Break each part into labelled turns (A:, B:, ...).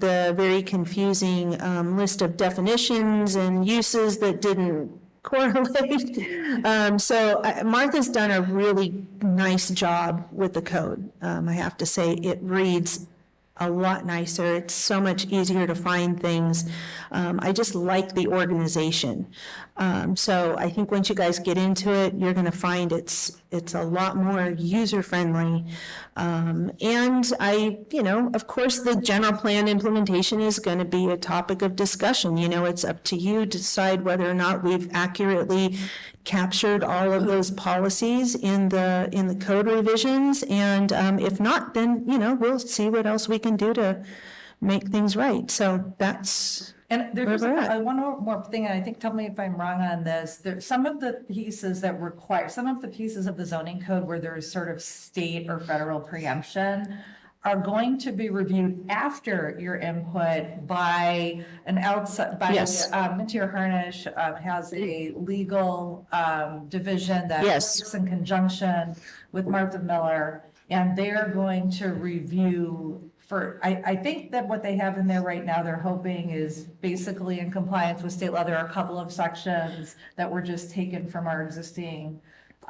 A: the very confusing um, list of definitions and uses that didn't correlate. Um, So I- Martha's done a really nice job with the code. Um, I have to say, it reads a lot nicer. It's so much easier to find things. Um, I just like the organization. Um, so I think once you guys get into it, you're going to find it's, it's a lot more user-friendly. Um, and I, you know, of course, the general plan implementation is going to be a topic of discussion. You know, it's up to you to decide whether or not we've accurately captured all of those policies in the, in the code revisions. And um, if not, then, you know, we'll see what else we can do to make things right. So that's,
B: And
A: Where
B: there's just
A: we're at.
B: uh, one more more thing, and I think, tell me if I'm wrong on this, there, some of the pieces that require, some of the pieces of the zoning code where there is sort of state or federal preemption are going to be reviewed after your input by an outside, by,
A: Yes.
B: um, Mintier Harnish, um, has a legal, um, division that
A: Yes.
B: works in conjunction with Martha Miller, and they are going to review for, I, I think that what they have in there right now, they're hoping is basically in compliance with state law. There are a couple of sections that were just taken from our existing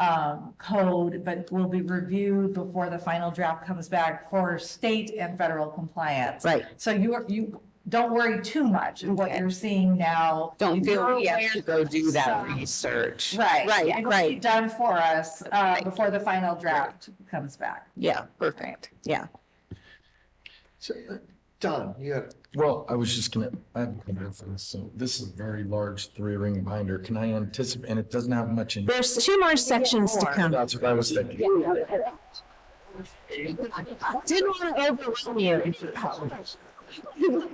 B: um, code, but will be reviewed before the final draft comes back for state and federal compliance.
A: Right.
B: So you are, you, don't worry too much of what
C: Okay.
B: you're seeing now.
C: Don't
B: You're
C: feel we have to
B: aware-
C: go do that
B: So-
C: research.
B: Right.
A: Right,
B: It'll be
A: right.
B: Done for us uh, before the final draft comes back.
A: yeah,
C: Perfect.
A: yeah.
D: So, uh, Don, you had.
E: Well, I was just gonna, I have a couple of things. So this is a very large three ring binder. Can I anticipate, and it doesn't have much in.
A: There's two more sections to come.
E: That's what I was thinking.
C: Didn't want to overwhelm you.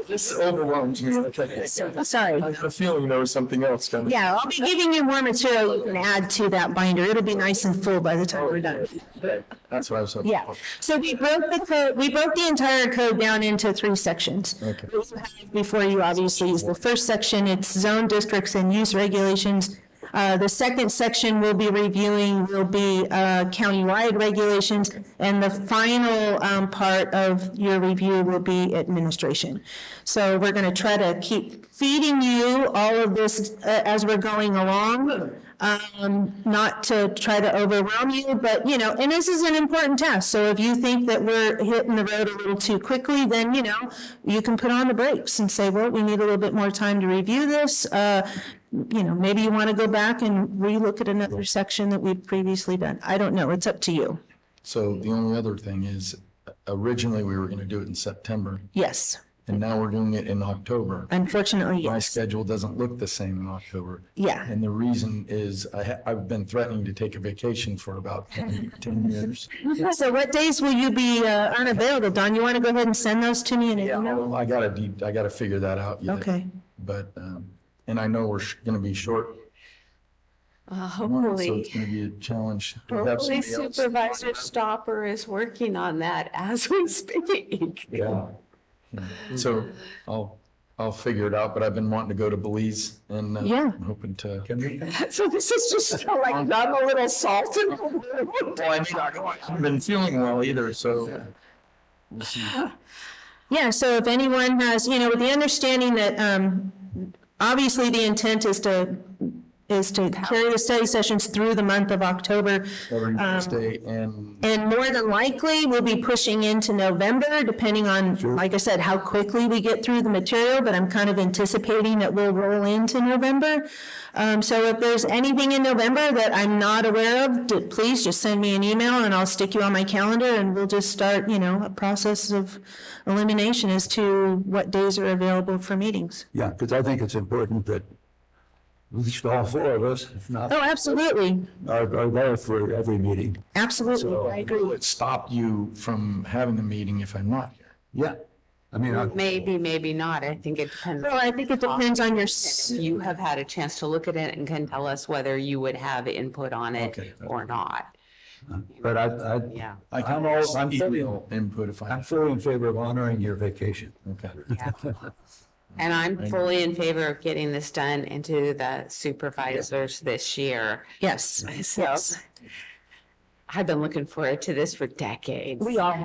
E: This overwhelms me. like, I said.
A: Oh, Sorry.
E: I had a feeling there was something else coming.
A: Yeah, I'll be giving you more material you can add to that binder. It'll be nice and full by the time we're done.
E: That's what I was hoping.
A: Yeah,
E: for.
A: so we broke the code, we broke the entire code down into three sections.
E: Okay.
A: What you have Before you obviously is the first section, it's zone districts and use regulations. Uh, the second section we'll be reviewing will be, uh, countywide regulations. And the final, um, part of your review will be administration. So we're gonna try to keep feeding you all of this, uh, as we're going along um, not to try to overwhelm you, but, you know, and this is an important test. So if you think that we're hitting the road a little too quickly, then, you know, you can put on the brakes and say, well, we need a little bit more time to review this. Uh, You know, maybe you want to go back and relook at another section that we've previously done. I don't know. It's up to you.
E: So the only other thing is originally we were gonna do it in September
A: Yes,
E: and now we're doing it in October.
A: unfortunately,
E: My
A: yes.
E: schedule doesn't look the same in October.
A: Yeah.
E: And the reason is I ha- I've been threatening to take a vacation for about ten years.
A: So what days will you be uh, unavailable? Don, you want to go ahead and send those to me in an
E: Yeah,
A: email?
E: well, I gotta, de- I gotta figure that out. yet.
A: Okay.
E: But, um, and I know we're sh- gonna be short. one, So it's
C: Hopefully,
E: gonna be a challenge. to have
C: hopefully
E: somebody else-
C: Supervisor Stopper is working on that as we speak.
E: Yeah. Yeah. So I'll, I'll figure it out, but I've been wanting to go to Belize and uh,
A: Yeah.
E: I'm hoping to.
D: Can we?
C: So this is just like, I'm a little salted.
E: Well, I mean, I haven't been feeling well either, so.
A: Yeah, so if anyone has, you know, with the understanding that, um, obviously the intent is to, is to carry the study sessions through the month of October.
E: Every Thursday and
A: And more than likely, we'll be pushing into November, depending on, like I said, how quickly we get through the material, but I'm kind of anticipating that we'll roll into November. Um, so if there's anything in November that I'm not aware of, d- please just send me an email and I'll stick you on my calendar and we'll just start, you know, a process of elimination as to what days are available for meetings.
F: Yeah, because I think it's important that at least all four of us, if not,
A: Oh, absolutely,
F: are, are there for every meeting.
A: absolutely, I agree.
E: it stopped you from having a meeting if I'm not here.
F: Yeah. I mean, I,
C: Maybe, maybe not. I think it depends.
A: Well, I think it depends on your, s-
C: If You have had a chance to look at it and can tell us whether you would have input on
E: Okay.
C: it or not.
F: but I, I,
C: Yeah.
E: I can
F: I'm all- I'm fully-
E: email input if
F: I'm
E: I,
F: fully in favor of honoring your vacation.
E: okay.
C: And I'm fully in favor of getting this done into the supervisors this year.
A: yes,
C: So
A: yes.
C: I've been looking forward to this for decades.
A: We all.